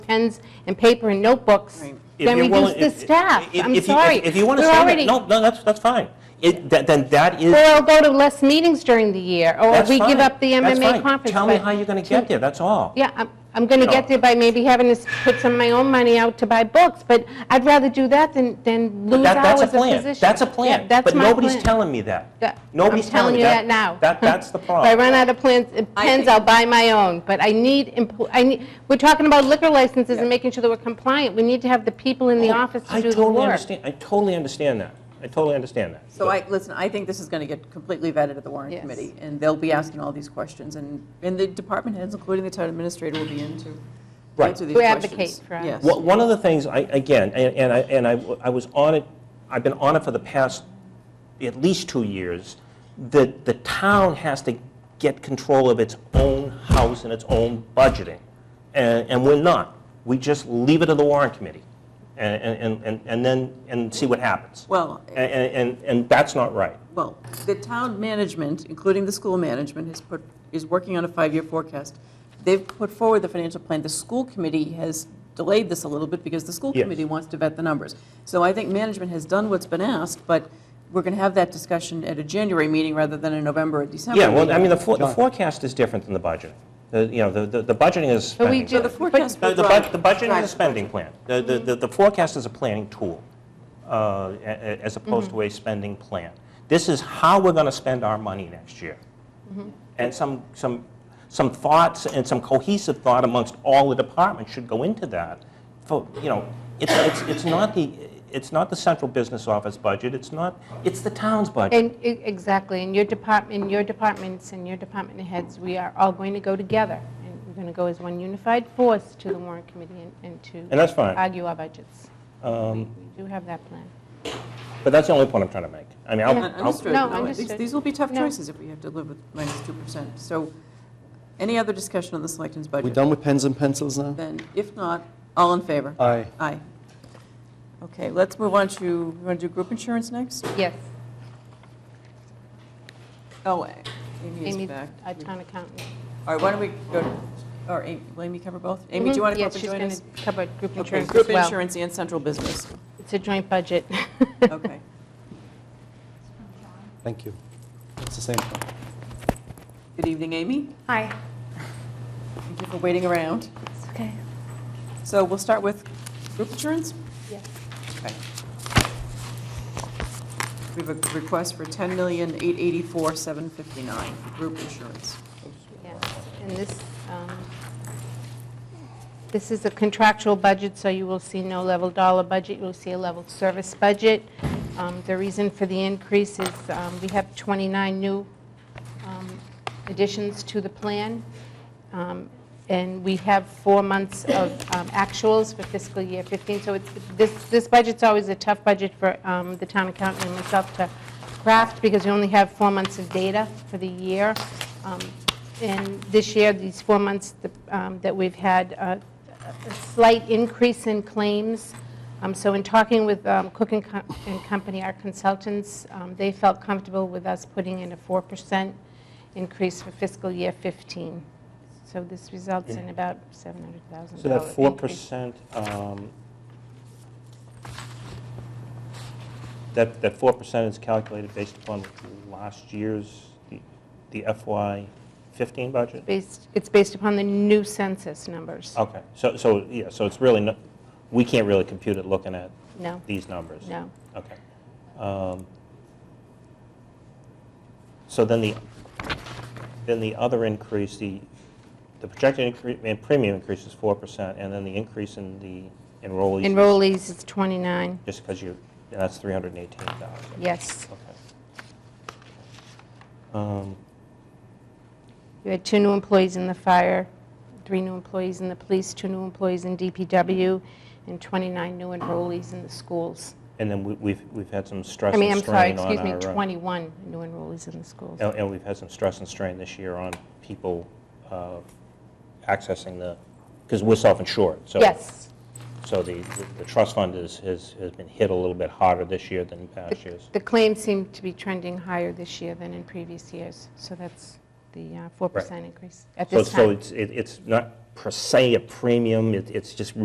pens and paper and notebooks, If then you're reduce willing- the if- staff. if- I'm if you- if- sorry. If you want to We're say already- that, no, no, that's, that's fine. It, that- then that is, Or I'll go to less meetings during the year, or that's we fine. give up the That's MMA fine. conference. Tell me but- how you're going to get there, that's all. Yeah, I'm, I'm going to No. get there by maybe having to s- put some of my own money out to buy books, but I'd rather do that than, than lose That- hours That's a of plan. position. That's a Yeah, plan. that's But my nobody's plan. telling me that. Yeah, Nobody's I'm telling me you that now. That, that's the problem. If I run out of plans, uh, pens, I'll buy my own, but I need, empl- I need, we're talking about liquor licenses and making sure that we're compliant. We need to have the people in the office to do the Oh, I totally work. understand, I totally understand that. I totally understand that. So I, listen, I think this is going to get completely vetted at the warrant Yes. committee, and they'll be asking all these questions, and, and the department heads, including the town administrator, will be in to to Right. answer these We questions. advocate for our- Yes. Wha- One of the things, I- again, and and I, and I w- I was on it, I've been on it for the past at least two years, that the town has to get control of its own house and its own budgeting. And and we're not. We just leave it to the warrant committee and- and and and then, and see what happens. Well, A- a- And and that's not right. well, the town management, including the school management, has put, is working on a five-year forecast. They've put forward the financial plan. The school committee has delayed this a little bit because the school Yes. committee wants to vet the numbers. So I think management has done what's been asked, but we're going to have that discussion at a January meeting rather than a November or December Yeah, well, I meeting. mean, the for- the forecast is different than the budgeting. The- You know, the- the the budgeting is But we spending. do- So the forecast The will the drive- bud- the budgeting drive is a spending plan. The- The the- the forecast is a planning tool, uh, a- a- as opposed to a spending plan. This is how we're going to spend our money next year. Mm-hmm. And some, some, some thoughts and some cohesive thought amongst all the departments should go into that. For, you know, it's, it's it's not the, it's not the central business office budget, it's not, it's the town's budget. And, e- exactly, and your department, your departments and your department heads, we are all going to go together. And we're going to go as one unified force to the warrant committee and- and to. And Um, that's fine. Argue our budgets. We we do have that plan. But that's the only point I'm trying to make. I mean, I'll- Yeah. Un- I'll, Understood. No, No, these- understood. These will be tough No. choices if we have to live with minus 2%. So any other discussion on the selectmen's We budget? done with pens and pencils now? Then, if not, all in favor? Aye. Aye. Okay, let's move on to, you want to do group insurance next? Yes, Oh, Amy is Amy's back. our town accountant. All right, why don't we go, to- or Amy, will Amy cover both? Amy, do you Mhm. want to come Yes, up and join us? she's going to cover group Okay, insurance as Group well. insurance and central business. It's a joint budget. Okay. Thank you. It's the same thing. Good evening, Amy. Hi. Thank you for waiting around. It's okay. So we'll start with group insurance? Yes. Okay. We have a request for ten million eight eighty-four seven fifty-nine for group insurance. Yes, and this, um, this is a contractual budget, so you will see no level dollar budget, you will see a level service budget. Um, The reason for the increase is um, we have 29 new um, additions to the plan, um, and we have four months of um, actuals for fiscal year 15, so it's, this, this budget's always a tough budget for um, the town accountant and myself to craft, because we only have four months of data for the year. Um, and this year, these four months th- um, that we've had uh, a slight increase in claims. Um, So in talking with um, Cook and Co- and Company, our consultants, um, they felt comfortable with us putting in a 4% increase for fiscal year 15. So this results in about $700,000. So that four increase. percent, um, that, that four percent is calculated based upon last year's, the- the FY fifteen budget? Based- It's based upon the new census numbers. Okay, so, so, yeah, so it's really, no- we can't really compute it looking at No, these numbers? no. Okay. Um, So then the, then the other increase, the, the projected incre- in premium increase is 4%, and then the increase in the enrollees? is- Enrollees is 29, Just because you, and that's 318,000. yes. Okay. Um, You had two new employees in the fire, three new employees in the police, two new employees in DPW, and 29 new enrollees in the schools. And then we- we've, we've had some stress I mean, and I'm sorry, strain on our... excuse me, uh, 21 new enrollees in the schools. And and we've had some stress and strain this year on people uh, accessing the, because we're self-insured, so. Yes, So the, the trust fund is, has, has been hit a little bit harder this year than past years. the claims seem to be trending higher this year than in previous years, so that's the uh, 4% increase at So, this time. so it's, it- it's not per se a premium, it- it's just